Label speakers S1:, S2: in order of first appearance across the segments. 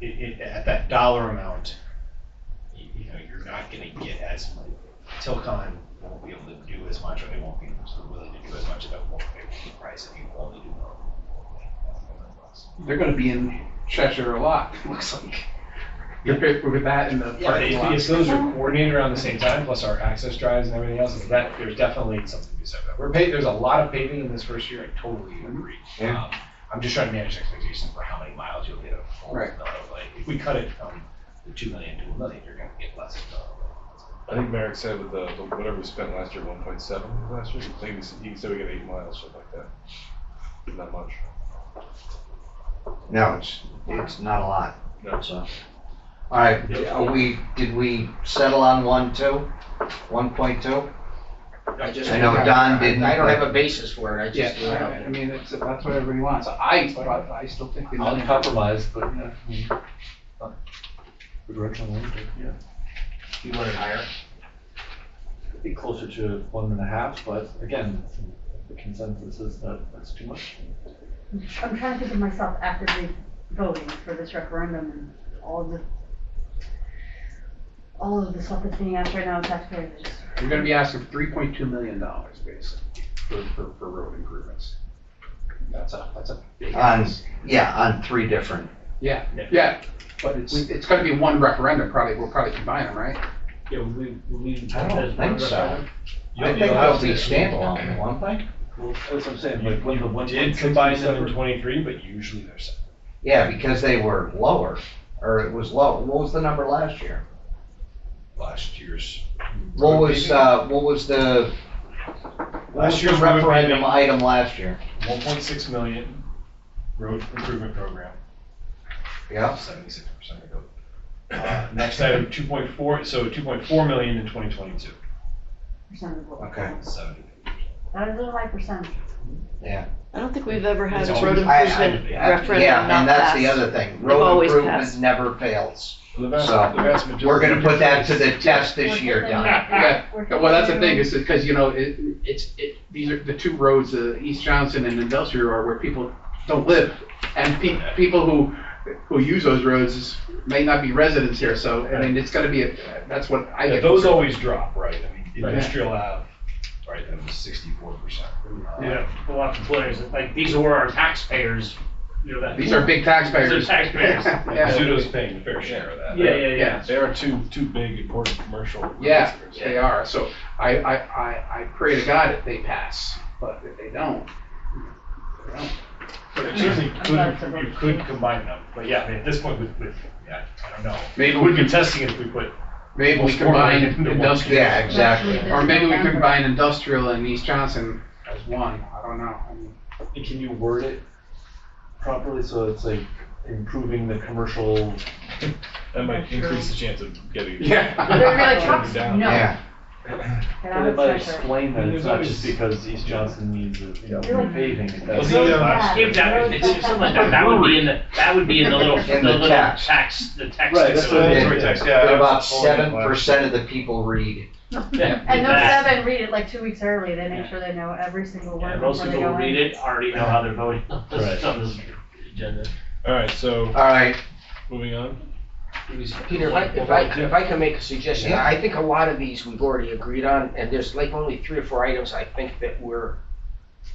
S1: it, it, at that dollar amount, you, you know, you're not gonna get as much. Tilcon won't be able to do as much, or they won't be sort of willing to do as much at that won't pay the price if you only do normal.
S2: They're gonna be in Cheshire a lot, it looks like. They're paid with that in the
S1: Yeah,
S2: parking lot.
S1: if those are coordinated around the same time, plus our access drives and everything else, is that, there's definitely something to be said about. it. We're paid, there's a lot of paving in this first year, I totally agree.
S3: Yeah.
S1: Um, I'm just trying to manage expectations for how many miles you'll get. of full
S2: Right.
S1: mileage. Like, if we cut it from the two million to a million, you're gonna get less. of mileage.
S3: I think Merrick said with the, the- whatever we spent last year, one point seven last year, maybe, he can say we got eight miles, something like that. Not much.
S4: No, it's, it's not a lot.
S3: No.
S4: So, all right, are we, did we settle on one, two? One point two?
S5: I just.
S4: I know Don didn't.
S5: I don't have a basis for it, I
S2: Yeah,
S5: just.
S2: I- I mean, that's, that's what everybody wants. I, but I still think the
S6: I'll
S2: million.
S6: compromise, but. Direction one, yeah.
S5: You want it higher?
S6: It'd Be closer to one and a half, but again, the consensus is that that's too much.
S7: I'm trying to think of myself actively voting for this referendum and all of the, all of the stuff that's being asked right now, taxpayers are just,
S2: You're gonna be asking three point two million dollars, basically, for, for, for road improvements.
S1: That's a, that's a
S6: Um,
S1: big.
S4: On, yeah, on three different.
S2: Yeah,
S1: Yeah.
S2: yeah, but it's, it's gonna be one referendum, probably, we'll probably combine them, right?
S5: Yeah, we, we.
S4: I don't think so. I think
S6: You'll- you'll
S4: they'll
S6: have
S4: be
S6: to-
S4: standalone, won't they?
S6: Well, That's what I'm saying,
S1: You
S6: like when the one.
S1: did combine them in twenty-three, but usually they're separate.
S4: Yeah, because they were lower, or it was low. What was the number last year?
S1: Last year's.
S4: What was, uh, what was the, what was
S1: Last
S4: the
S1: year's
S4: referendum
S1: referendum,
S4: item last year?
S1: one point six million road improvement program,
S4: Yeah,
S1: seventy-six percent of the Uh, next item, two point four, so two point four million in twenty twenty-two,
S7: percent of the vote.
S4: Okay.
S1: seventy.
S7: That is a high percent.
S8: I don't think we've ever had
S1: It's
S8: a
S1: always-
S8: road
S4: I- I-
S8: improvement referendum
S4: Yeah,
S8: not
S4: and that's the
S8: passed.
S4: other thing.
S8: They've
S4: Road
S8: always
S4: improvement
S8: passed.
S4: never fails.
S3: The vast,
S4: So,
S3: the vast majority.
S4: We're gonna put that to the test this year, Don.
S2: Yeah,
S7: We're
S2: Well, that's the thing,
S7: thinking-
S2: is because, you know, it, it's, it, these are the two roads, uh, East Johnson and Industrial are where people don't live. And pe- people who, who use those roads may not be residents here, so, I mean, it's gonna be, a that's what I
S1: Yeah,
S2: get.
S1: those always drop, right? I mean,
S2: Right.
S1: industrial have, right, that was sixty-four percent.
S5: Yeah, a lot of players, like, these were our taxpayers, you know, that.
S2: These are big taxpayers.
S5: These are taxpayers.
S2: Yeah.
S1: Zudo's paying the fair share of that.
S5: Yeah, yeah, yeah.
S3: They are two, two big important commercial.
S2: Yeah,
S3: districts.
S2: they are. So I, I, I, I pray to God that they pass, but if they don't, they don't.
S1: But it's usually
S7: not
S1: could,
S7: sure.
S1: you could combine them, but yeah, I mean, at this point with, with, yeah, I don't know.
S2: Maybe
S1: We'd be
S2: we,
S1: testing it if we put,
S2: maybe we combine industrial.
S4: Yeah, exactly.
S2: Or maybe we combine industrial and East Johnson as one, I don't know. I mean,
S6: Can you word it properly so it's like improving the commercial
S3: That might increase the chance of getting.
S7: But
S2: Yeah.
S7: they're like trucks,
S3: Down.
S7: no.
S4: Yeah,
S7: Get
S6: But
S7: out
S6: it
S7: of
S6: might
S7: Cheshire.
S6: explain that
S1: And there's
S6: it's not
S1: always-
S6: just because East Johnson needs a, you know,
S7: Yeah.
S6: paving. and
S1: Well,
S6: that's-
S1: see,
S7: Roads
S1: uh,
S7: bad.
S5: If that, if it's something like that, that would be in the, that would be in the little, the
S4: In the
S5: little
S4: tax.
S5: tax, the tax.
S6: Right, that's
S1: so
S6: what I
S1: it's
S6: mean.
S1: three text, yeah.
S4: but about
S1: that's all we have
S4: seven
S1: left.
S4: percent of the people read.
S7: And those
S5: That-
S7: seven read it like two weeks early, they make sure they know every single
S5: Yeah,
S7: word
S5: most
S7: before they
S5: people
S7: go
S5: who read
S7: in.
S5: it already know how they're voting on
S6: Right.
S5: this, on this agenda.
S3: All right, so
S4: All right,
S3: moving on.
S5: Peter, if I, if I, if I can make a suggestion,
S4: Yeah.
S5: I think a lot of these we've already agreed on, and there's like only three or four items I think that we're,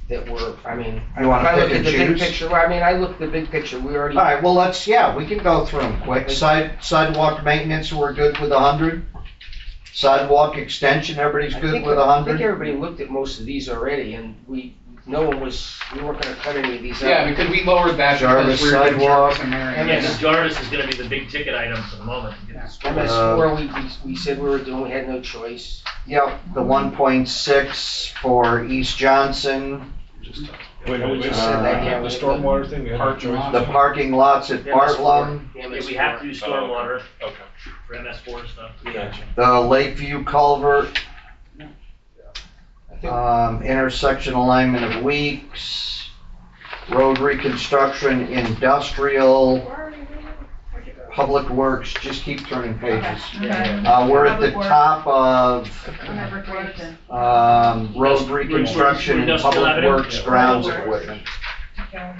S5: that were, I mean, if
S4: You wanna
S5: I look
S4: pick and
S5: at the big
S4: choose?
S5: picture, I mean, I look at the big picture, we already,
S4: all right, well, let's, yeah, we can go through them quick. Side, sidewalk maintenance, we're good with a hundred. Sidewalk extension, everybody's
S5: I
S4: good
S5: think,
S4: with a
S5: I think
S4: hundred.
S5: everybody looked at most of these already, and we, no one was, we weren't gonna cut any of these out.
S2: Yeah, because we lowered that. because
S4: Jarvis
S2: we were doing
S4: sidewalk.
S2: Jarvis and Marion.
S5: Yeah,
S4: Yes.
S5: Jarvis is gonna be the big ticket item for the moment. I
S4: Uh,
S5: swore we, we- we said we were doing, we had no choice.
S4: Yep, the one point six for East Johnson,
S1: Just, uh,
S3: Wait,
S1: yeah,
S3: wait,
S1: we
S3: wait,
S1: just-
S4: Uh,
S3: the stormwater thing, we had a
S2: Parking
S3: choice.
S2: lot.
S4: the parking lots at Bartlum,
S5: we have to do
S3: stormwater Okay.
S5: for MS four stuff.
S3: Gotcha.
S4: the Lakeview culvert,
S5: I think
S4: um, intersection alignment of Weeks, road reconstruction, industrial,
S7: Where are you reading? Where'd you go?
S4: Public Works, just keep turning pages.
S7: Okay,
S4: Uh, we're at the
S7: Public Works.
S4: top of,
S7: I'm at recreation.
S4: um, road
S5: Industri-
S4: reconstruction and
S5: industrial
S4: public
S5: avenue?
S4: works
S5: Yeah.
S4: grounds
S5: Public Works.
S4: equipment.
S9: Okay.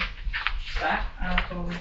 S9: Back, I'll go